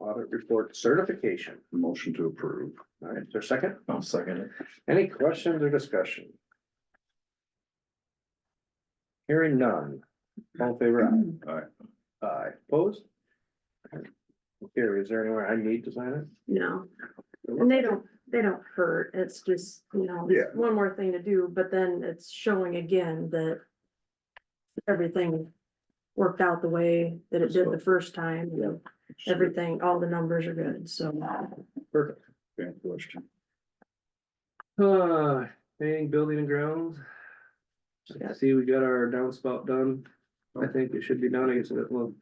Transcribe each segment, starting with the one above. audit report certification. Motion to approve. All right, is there a second? I'll second it. Any questions or discussion? Hearing none. All in favor aye. Aye. Aye, opposed? Here, is there anywhere I need to sign it? No, and they don't, they don't hurt, it's just, you know, Yeah. one more thing to do, but then it's showing again that. Everything worked out the way that it did the first time, you know, everything, all the numbers are good, so. Perfect. Great question. Uh, paying building and grounds. I see we got our downspout done. I think it should be done, I guess it will.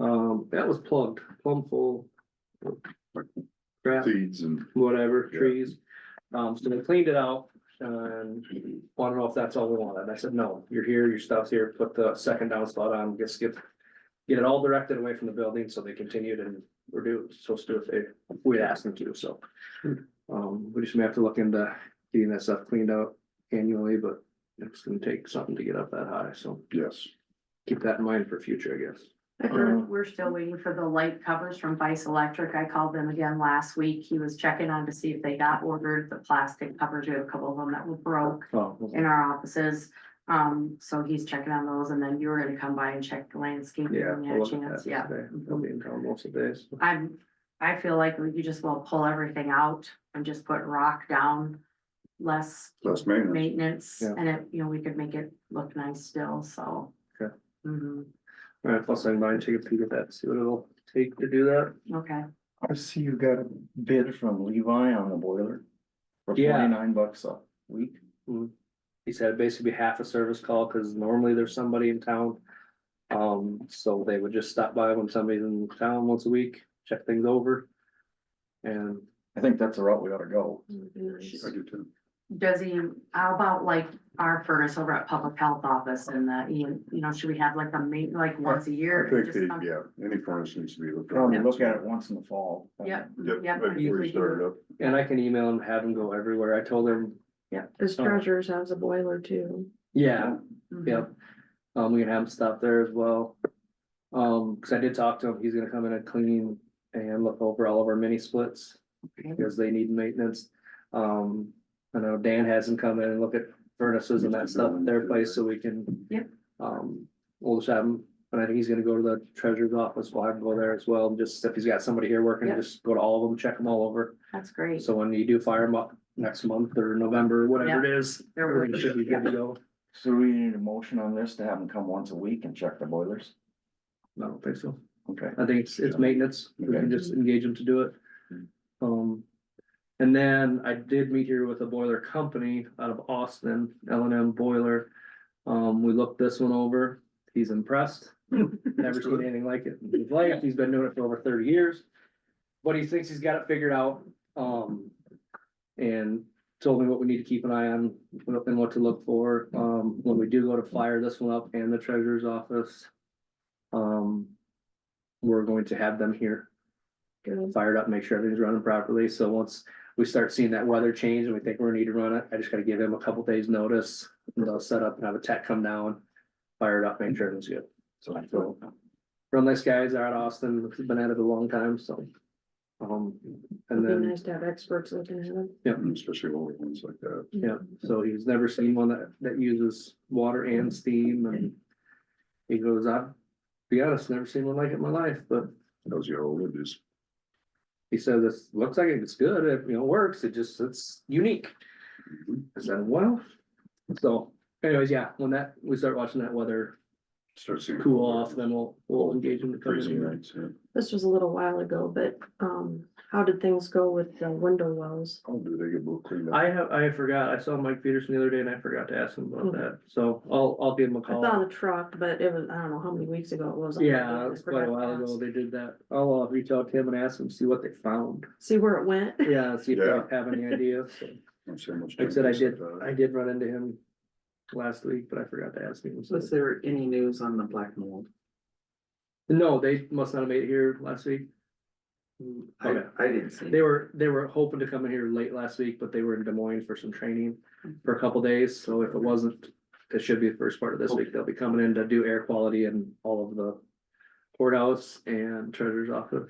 Um, that was plugged, plumb full. Crap, Seeds and. whatever, Yeah. trees. Um, so they cleaned it out and wanted to know if that's all we wanted. And I said, no, you're here, your stuff's here, put the second downspout on, just get. Get it all directed away from the building, so they continued and we're doing, supposed to do if they, we asked them to, so. Um, we just may have to look into getting that stuff cleaned out annually, but it's gonna take something to get up that high, so Yes. keep that in mind for future, I guess. Um, I Mm. heard we're still waiting for the light covers from Vice Electric. I called them again last week. He was checking on to see if they got ordered the plastic covers. We have a couple of them that were broke Oh, in our offices. Um, so he's checking on those and then you were gonna come by and check the landscaping. yeah. when you I'll had a look at chance. that Yeah, today. I'll be in town most of the days. I'm, I feel like you just will pull everything out and just put rock down. Less Less maintenance. maintenance Yeah. and it, you know, we could make it look nice still, so. Okay. Mhm. Alright, plus I might take a peek at that, see what it'll take to do that. okay. I see you got a bid from Levi on the boiler. For Yeah. forty-nine bucks a week. He said it'd basically be half a service call, cause normally there's somebody in town. Um, so they would just stop by when somebody's in town once a week, check things over. And I think that's the route we ought to go. I do too. Does he, how about like our furnace over at Public Health Office and the, you know, should we have like a meet, like once a I year? think Just the, come- yeah, any furnace needs to be looked at. Probably look at it once in the fall. Yep, Yep, yep. right before you start it up. and I can email him, have him go everywhere. I told him, This treasures has a boiler too. yeah, Mhm. Yep. Um, we can have him stop there as well. Um, cause I did talk to him, he's gonna come in and clean and look over all of our mini splits. Okay. Because they need maintenance. Um, I know Dan has him come in and look at furnaces and that stuff at their place, so we can. Yep. Um, we'll just have him, and I think he's gonna go to the treasurer's office, we'll have him go there as well, and just if he's got somebody here working, Yep. just go to all of them, check them all over. That's great. So when you do fire them up next month or November, whatever it is, They're everything working. should be good to go. So we need a motion on this to have them come once a week and check the boilers. I don't think so. Okay. I think it's, it's maintenance, we can Okay. just engage them to do it. Um, and then I did meet here with a boiler company out of Austin, L and M Boiler. Um, we looked this one over, he's impressed, never seen anything like it in his life, he's been doing it for over thirty years. But he thinks he's got it figured out, um, and told me what we need to keep an eye on what- and what to look for, um, when we do go to fire this one up and the treasurer's office. Um, we're going to have them here. Get them fired up, make sure everything's running properly, so once we start seeing that weather change and we think we're gonna need to run it, I just gotta give them a couple days' notice. And they'll set up and have a tech come down, fire it up, make sure everything's good, so. Real nice guys out of Austin, been at it a long time, so. Um, and It'd be then, nice to have experts looking at them. Especially older ones like that. yeah, so he's never seen one that, that uses water and steam and. He goes, I, to be honest, never seen one like it in my life, but Those are old it is. He said, this looks like it's good, it, you know, works, it just, it's unique. I said, well, so anyways, yeah, when that, we start watching that weather Start seeing. cool off, then we'll, we'll engage them to come in Freezing here. nights, yeah. This was a little while ago, but, um, how did things go with the window wells? Oh, do they get both cleaned up? I have, I forgot, I saw Mike Peterson the other day and I forgot to ask him about that, so I'll, I'll give him a Hmm. I saw call. the truck, but it was, I don't know how many weeks ago it was. Oh. Yeah, it was I quite a forgot to while ago ask. they did that. I'll uh, reach out to him and ask him, see what they found. See where it went? Yeah, see if Yeah. they have any ideas. So, Not so much Like I said, I time did, to- I did run into him last week, but I forgot to ask him. so- Was there any news on the black mold? No, they must not have made it here last week. I, Okay. I didn't see. They were, they were hoping to come in here late last week, but they were in Des Moines for some training for a couple days, so if it wasn't. It should be the first part of this week, they'll be coming in to do air quality and all of the courthouse and treasurer's office.